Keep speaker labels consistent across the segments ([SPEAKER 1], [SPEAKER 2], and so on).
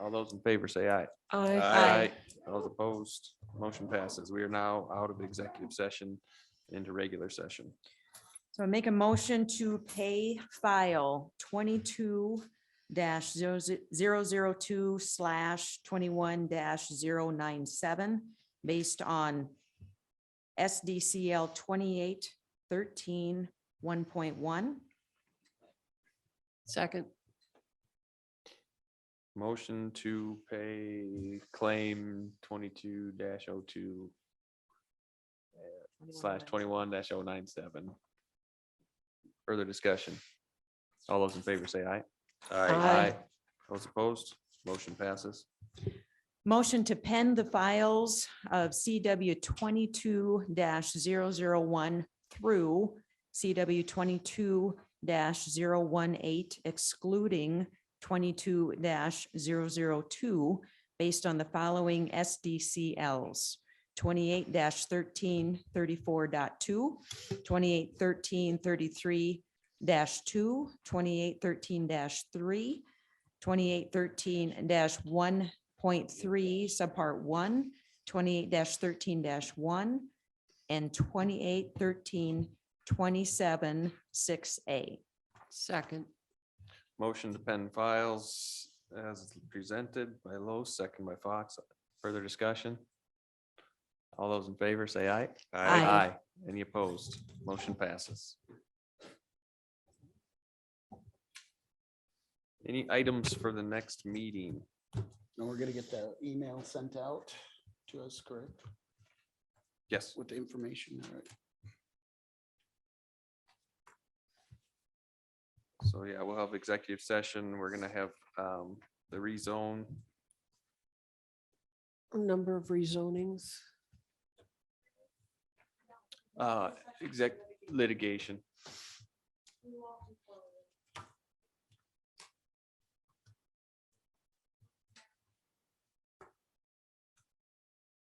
[SPEAKER 1] All those in favor say aye.
[SPEAKER 2] Aye.
[SPEAKER 1] Those opposed, motion passes. We are now out of executive session into regular session.
[SPEAKER 3] So I make a motion to pay file twenty-two 2 slash twenty-one 97 based on SDCL twenty-eight thirteen one point one.
[SPEAKER 2] Second.
[SPEAKER 1] Motion to pay claim twenty-two 2 slash twenty-one oh 97 Further discussion. All those in favor say aye.
[SPEAKER 2] Aye.
[SPEAKER 1] Those opposed, motion passes.
[SPEAKER 3] Motion to pen the files of CW twenty-two one through CW twenty-two 18 excluding twenty-two 2 based on the following SDCLs. Twenty-eight 13 34.2, 28 13 33 two, 28 13 three, 28 13 one point three, subpart one, 28 thirteen one, and 28 13 27 six A.
[SPEAKER 2] Second.
[SPEAKER 1] Motion to pen files as presented by Lowe, second by Fox. Further discussion? All those in favor say aye.
[SPEAKER 3] Aye.
[SPEAKER 1] Any opposed? Motion passes. Any items for the next meeting?
[SPEAKER 4] And we're gonna get the email sent out to us, correct,
[SPEAKER 1] Yes,
[SPEAKER 4] with the information, all right?
[SPEAKER 1] so yeah, we'll have executive session. We're gonna have um, the rezone.
[SPEAKER 2] Number of rezonings.
[SPEAKER 1] Uh, exec litigation.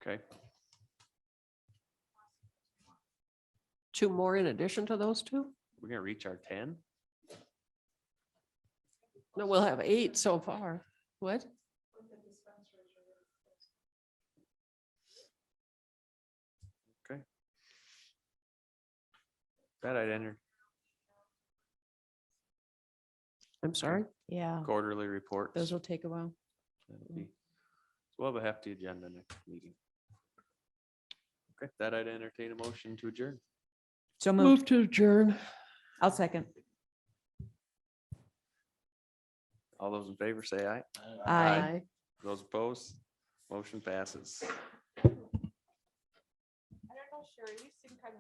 [SPEAKER 1] Okay,
[SPEAKER 2] Two more in addition to those two?
[SPEAKER 1] we're gonna reach our ten?
[SPEAKER 2] No, we'll have eight so far. What?
[SPEAKER 1] That I'd enter
[SPEAKER 2] I'm sorry.
[SPEAKER 5] Yeah,
[SPEAKER 1] quarterly reports.
[SPEAKER 5] those will take a while.
[SPEAKER 1] That'll be- so We'll have a hefty agenda next meeting. Okay, that I'd entertain a motion to adjourn.
[SPEAKER 3] So moved.
[SPEAKER 2] Move to adjourn.
[SPEAKER 3] I'll second.
[SPEAKER 1] All those in favor say aye.
[SPEAKER 3] Aye.
[SPEAKER 1] Those opposed, motion passes.